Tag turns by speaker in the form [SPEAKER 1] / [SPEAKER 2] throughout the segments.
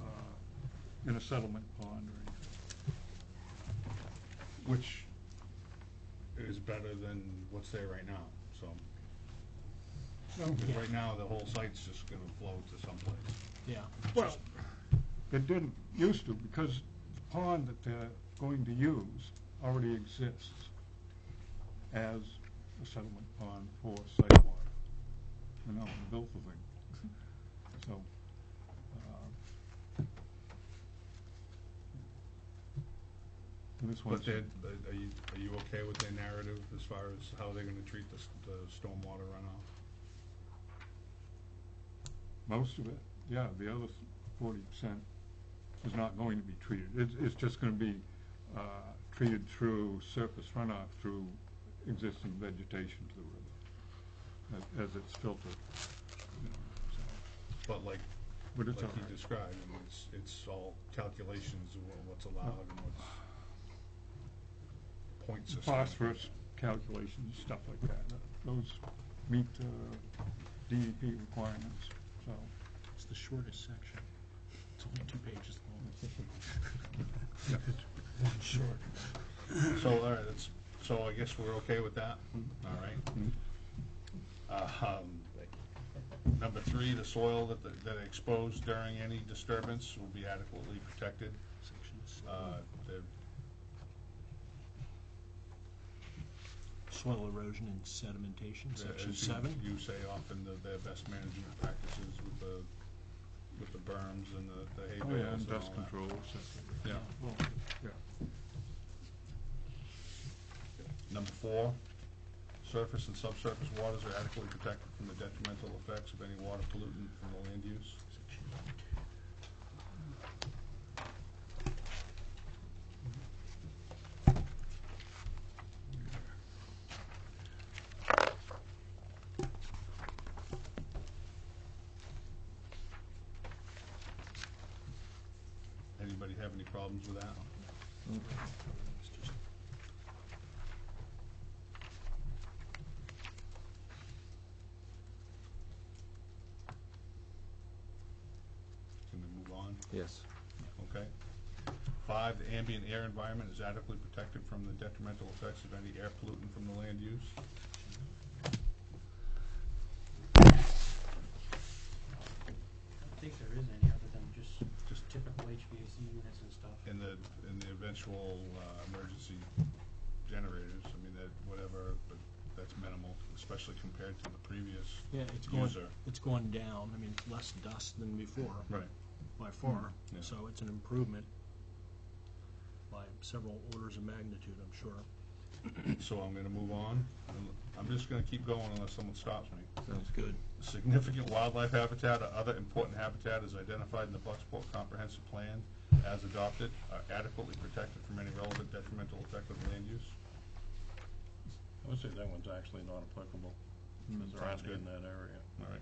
[SPEAKER 1] uh, in a settlement pond or anything. Which
[SPEAKER 2] is better than what's there right now, so.
[SPEAKER 1] No.
[SPEAKER 2] 'Cause right now, the whole site's just gonna flow to someplace.
[SPEAKER 3] Yeah.
[SPEAKER 1] Well, it didn't used to, because the pond that they're going to use already exists as a settlement pond for site water. You know, and built the thing. So, uh, and this
[SPEAKER 2] But
[SPEAKER 1] one's,
[SPEAKER 2] they're, are- are you, are you okay with their narrative as far as how they're gonna treat the, s- the stormwater runoff?
[SPEAKER 1] most of it, yeah, the other forty percent is not going to be treated. It's, it's just gonna be, uh, treated through surface runoff through existing vegetation to the river a- as it's filtered. you know, so.
[SPEAKER 2] But like,
[SPEAKER 1] But it's
[SPEAKER 2] like
[SPEAKER 1] all
[SPEAKER 2] you
[SPEAKER 1] right.
[SPEAKER 2] described, I mean, it's, it's all calculations of what- what's allowed and what's point system.
[SPEAKER 1] Phosphorus calculations, stuff like that, uh, those meet uh, the DEP requirements, so.
[SPEAKER 3] It's the shortest section. It's only two pages
[SPEAKER 1] Yeah.
[SPEAKER 3] long. One short.
[SPEAKER 2] So, all right, that's, so I guess we're okay with that, all right?
[SPEAKER 1] mm.
[SPEAKER 2] Um, Number three, the soil that, the- that exposed during any disturbance will be adequately protected.
[SPEAKER 3] Sections.
[SPEAKER 2] Uh, the-
[SPEAKER 3] Soil erosion and sedimentation, section
[SPEAKER 2] as you-
[SPEAKER 3] seven.
[SPEAKER 2] You say often the, their best management practices with the, with the berms and the, the hay
[SPEAKER 1] Oh,
[SPEAKER 2] bales and
[SPEAKER 1] yeah, and dust
[SPEAKER 2] all that.
[SPEAKER 1] control, etc.
[SPEAKER 2] Yeah.
[SPEAKER 3] Well,
[SPEAKER 2] Number four, surface and subsurface waters are adequately protected from the detrimental effects of any water pollutant from the land use.
[SPEAKER 3] section
[SPEAKER 2] Anybody have any problems with that?
[SPEAKER 3] eight. It's just-
[SPEAKER 2] Can we move on?
[SPEAKER 4] Yes.
[SPEAKER 2] Okay. Five, the ambient air environment is adequately protected from the detrimental effects of any air pollutant from the land use.
[SPEAKER 5] I don't think there is any other than just
[SPEAKER 2] Just-
[SPEAKER 5] typical HVAC units and stuff.
[SPEAKER 2] In the, in the eventual, uh, emergency generators, I mean, that, whatever, but that's minimal, especially compared to the previous
[SPEAKER 3] Yeah, it's going,
[SPEAKER 2] user.
[SPEAKER 3] it's going down. I mean, it's less dust than before.
[SPEAKER 2] Right.
[SPEAKER 3] by far,
[SPEAKER 2] Yeah.
[SPEAKER 3] so it's an improvement by several orders of magnitude, I'm sure.
[SPEAKER 2] So I'm gonna move on. I'm just gonna keep going unless someone stops me.
[SPEAKER 3] Sounds good.
[SPEAKER 2] Significant wildlife habitat or other important habitat is identified in the Bucksport Comprehensive Plan as adopted, are adequately protected from any relevant detrimental effect of land use.
[SPEAKER 6] I would say that one's actually not applicable, because there
[SPEAKER 2] Sounds
[SPEAKER 6] aren't any
[SPEAKER 2] good.
[SPEAKER 6] in that area.
[SPEAKER 2] All right.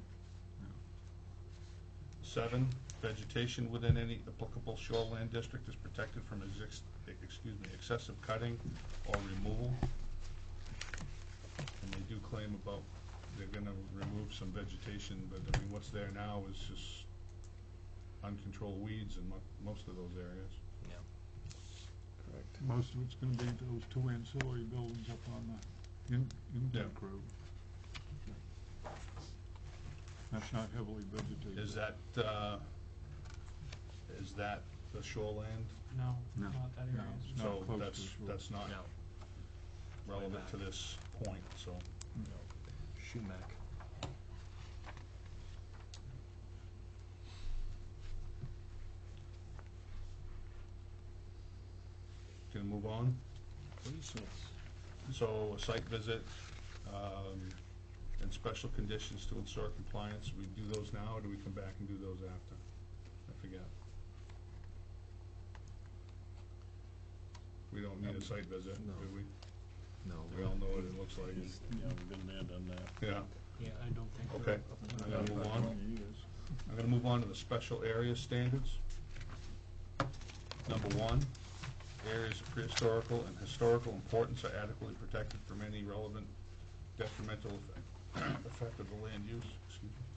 [SPEAKER 2] Seven, vegetation within any applicable shoreline district is protected from exist, excuse me, excessive cutting or removal. And they do claim about, they're gonna remove some vegetation, but I mean, what's there now is just uncontrolled weeds in mo- most of those areas.
[SPEAKER 4] Correct.
[SPEAKER 1] Most of it's gonna be those two ancillary buildings up on the in, intake road. That's not heavily vegetated.
[SPEAKER 2] Is that, uh, is that the shoreland?
[SPEAKER 5] No,
[SPEAKER 1] No.
[SPEAKER 5] not that
[SPEAKER 1] No,
[SPEAKER 5] area.
[SPEAKER 1] it's not
[SPEAKER 2] So
[SPEAKER 1] close to
[SPEAKER 2] that's,
[SPEAKER 1] the shore.
[SPEAKER 2] that's not
[SPEAKER 3] No,
[SPEAKER 2] relevant
[SPEAKER 3] back.
[SPEAKER 2] to this point, so.
[SPEAKER 3] Schumack.
[SPEAKER 2] Gonna move on?
[SPEAKER 3] Please.
[SPEAKER 2] So a site visit, um, and special conditions to ensure compliance, we do those now, or do we come back and do those after? I forget. We don't need a site visit,
[SPEAKER 4] No.
[SPEAKER 2] do we?
[SPEAKER 4] No.
[SPEAKER 2] We all know what it looks like.
[SPEAKER 6] Yeah, we've been there, done that.
[SPEAKER 2] Yeah,
[SPEAKER 3] Yeah, I don't think.
[SPEAKER 2] okay. I'm gonna move on. I'm gonna move on to the special area standards. Number one, areas of prehistorical and historical importance are adequately protected from any relevant detrimental effect- effect of the land use, excuse me.